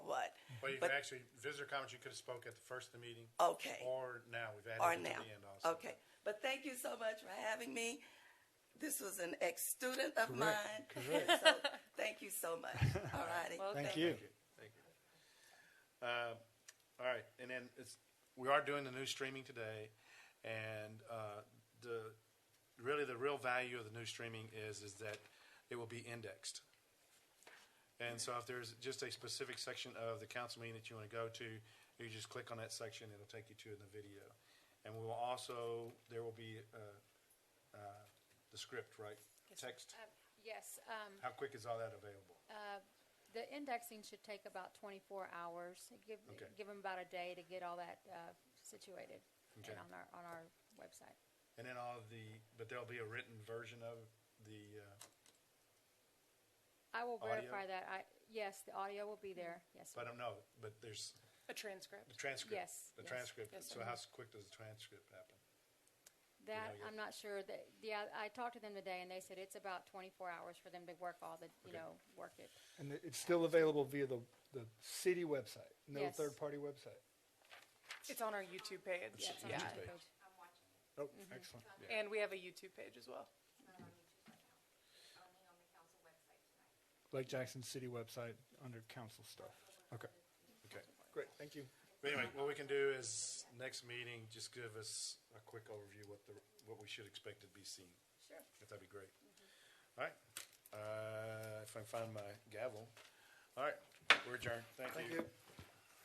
you But- could actually, visitor comments, you could have spoke at the first of the meeting. Okay. Or now, we've Or added it now. to the end also. Okay, but thank you so much for having me. This was an ex-student of mine. Correct, correct. So, Thank you so much. All righty. Well, Thank you. Thank you. Thank you. Uh, All right, and then it's, we are doing the new streaming today, and uh, the, really, the real value of the new streaming is, is that it will be indexed. And so if there's just a specific section of the council meeting that you want to go to, you just click on that section, it'll take you to the video. And we will also, there will be uh, uh, the script, right? Text. Um, Yes, um, How uh, quick is all that available? the indexing should take about 24 hours. Give, Okay. give them about a day to get all that uh, situated Okay. and on our, on our website. And then all of the, but there'll be a written version of the, uh, I will Audio? Hmm. verify that. I, yes, the audio will be there, yes. but I don't know, but there's the A transcript. transcript. Yes, The yes, transcript. yes, So sir. how quick does the transcript happen? know, That, you- I'm not sure that, yeah, I talked to them today and they said it's about 24 hours for them to work all the, Okay. you know, work it. And it- it's still available via the, the city website, no Yes. third-party website. It's on our YouTube page. Yeah, it's on Yeah. our page. I'm watching it. Oh, excellent. And we have a YouTube page as well. It's not on YouTube right now. It's Only on the council website tonight. Lake Jackson City website under council stuff. Okay, Okay. great, thank you. But anyway, what we can do is next meeting, just give us a quick overview what the, what we should expect to be seen. Sure. If that'd be great. All right. Uh, if I can find my gavel. All right. We're adjourned. Thank you. Thank you.